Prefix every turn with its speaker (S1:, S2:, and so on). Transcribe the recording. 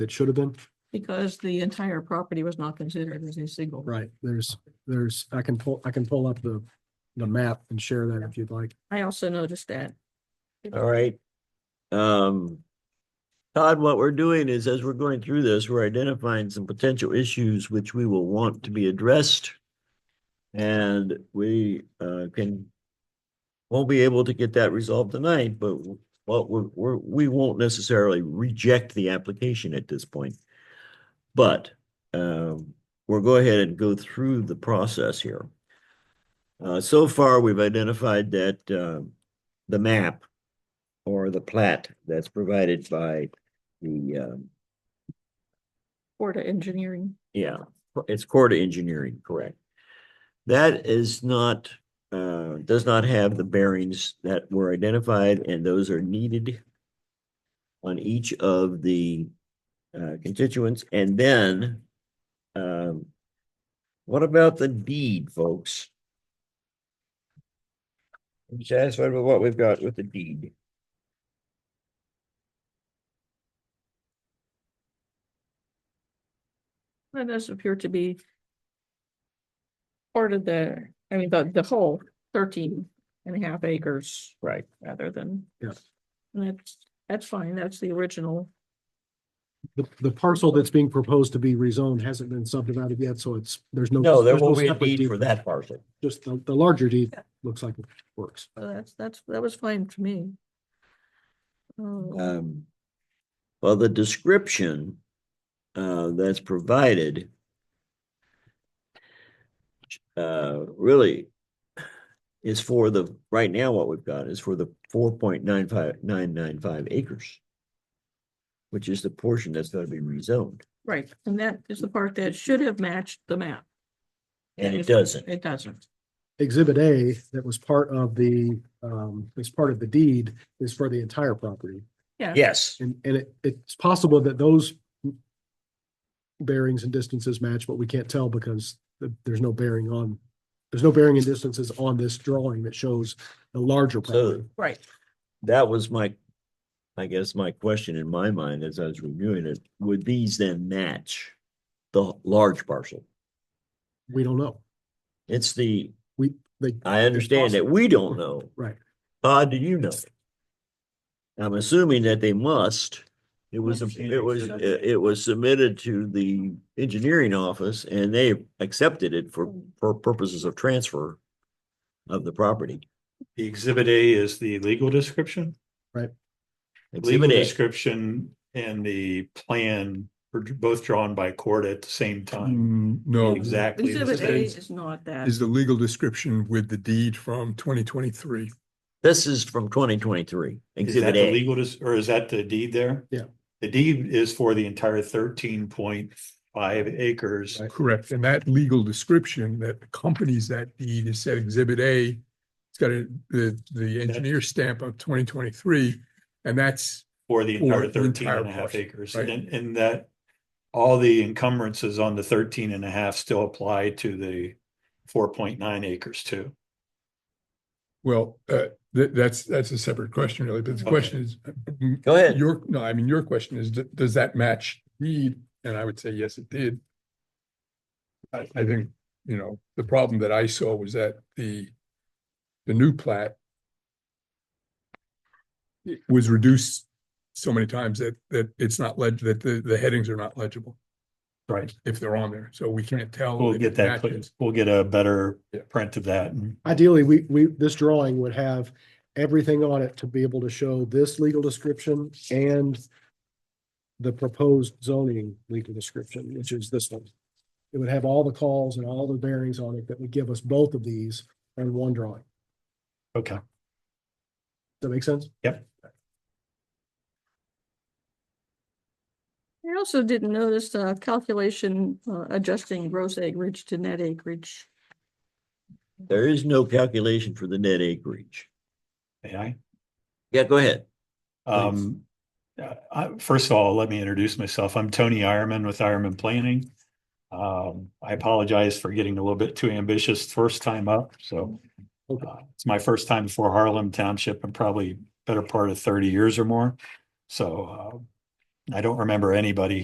S1: that should have been.
S2: because the entire property was not considered as a single.
S1: Right, there's, there's, I can pull, I can pull up the, the map and share that if you'd like.
S2: I also noticed that.
S3: All right. Um, Todd, what we're doing is as we're going through this, we're identifying some potential issues which we will want to be addressed. And we, uh, can, won't be able to get that resolved tonight, but what we're, we're, we won't necessarily reject the application at this point. But, um, we'll go ahead and go through the process here. Uh, so far, we've identified that, um, the map or the plat that's provided by the, um,
S2: Porta Engineering.
S3: yeah, it's Corda Engineering, correct? That is not, uh, does not have the bearings that were identified and those are needed on each of the, uh, constituents. And then, um, what about the deed, folks? Are you satisfied with what we've got with the deed?
S2: That does appear to be part of the, I mean, the, the whole 13 and a half acres
S3: Right.
S2: rather than.
S1: Yes.
S2: And that's, that's fine. That's the original.
S1: The, the parcel that's being proposed to be rezoned hasn't been subdivided yet, so it's, there's no.
S3: No, there
S1: there's no
S3: will be a
S1: separate
S3: deed for that parcel.
S1: Just the, the larger deed looks like it works.
S2: So that's, that's, that was fine to me. Um,
S3: Um, well, the description uh, that's provided uh, really is for the, right now, what we've got is for the four point nine five, nine nine five acres, which is the portion that's going to be rezoned,
S2: Right, and that is the part that should have matched the map.
S3: and it
S2: If-
S3: doesn't.
S2: It doesn't.
S1: Exhibit A that was part of the, um, is part of the deed is for the entire property.
S3: Yes,
S1: And, and it, it's possible that those bearings and distances match, but we can't tell because th- there's no bearing on, there's no bearing and distances on this drawing that shows the larger property.
S2: Right.
S3: that was my, I guess, my question in my mind as I was reviewing it, would these then match the large parcel?
S1: We don't know.
S3: It's the,
S1: We, they,
S3: I understand that we don't know.
S1: right.
S3: Todd, do you know? I'm assuming that they must. It was, it was, it was submitted to the engineering office and they accepted it for, for purposes of transfer of the property.
S4: The exhibit A is the legal description. Legal
S3: Exhibit A.
S4: description and the plan were both drawn by court at the same time.
S5: Mm, No,
S4: Exactly. the
S2: Exhibit A
S4: same.
S2: is not that.
S5: is the legal description with the deed from twenty twenty-three.
S3: This is from twenty twenty-three,
S4: Is that
S3: exhibit
S4: the
S3: A.
S4: legal, des- or is that the deed there?
S1: Yeah.
S4: The deed is for the entire thirteen point five acres.
S1: Right.
S5: Correct. And that legal description that accompanies that deed is said Exhibit A. It's got a, the, the engineer stamp of twenty twenty-three, and that's
S4: For the
S5: For
S4: entire
S5: the
S4: 13
S5: entire
S4: and a half
S5: parcel,
S4: acres,
S5: right.
S4: and, and that. All the encumbrances on the 13 and a half still apply to the four point nine acres too.
S5: Well, uh, that, that's, that's a separate question really, but the
S4: Okay.
S5: question is, mm,
S3: Go ahead.
S5: your, no, I mean, your question is, d- does that match deed? And I would say, yes, it did. I, I think, you know, the problem that I saw was that the, the new plat was reduced so many times that, that it's not leg, that the, the headings are not legible
S4: Right.
S5: if they're on there. So we can't tell.
S4: We'll
S5: if it
S4: get that, clear-
S5: matches.
S4: we'll get a better
S5: Yeah.
S4: print of that and
S1: Ideally, we, we, this drawing would have everything on it to be able to show this legal description and the proposed zoning legal description, which is this one. It would have all the calls and all the bearings on it that would give us both of these on one drawing.
S4: Okay,
S1: Does that make sense?
S2: I also didn't notice uh calculation uh, adjusting gross acreage to net acreage.
S3: There is no calculation for the net acreage.
S4: may I?
S3: Yeah, go ahead.
S4: Um, uh, I, first of all, let me introduce myself. I'm Tony Ironman with Ironman Planning. Um, I apologize for getting a little bit too ambitious first time up, so.
S1: Okay.
S4: uh, It's my first time before Harlem Township and probably better part of thirty years or more. So, uh, I don't remember anybody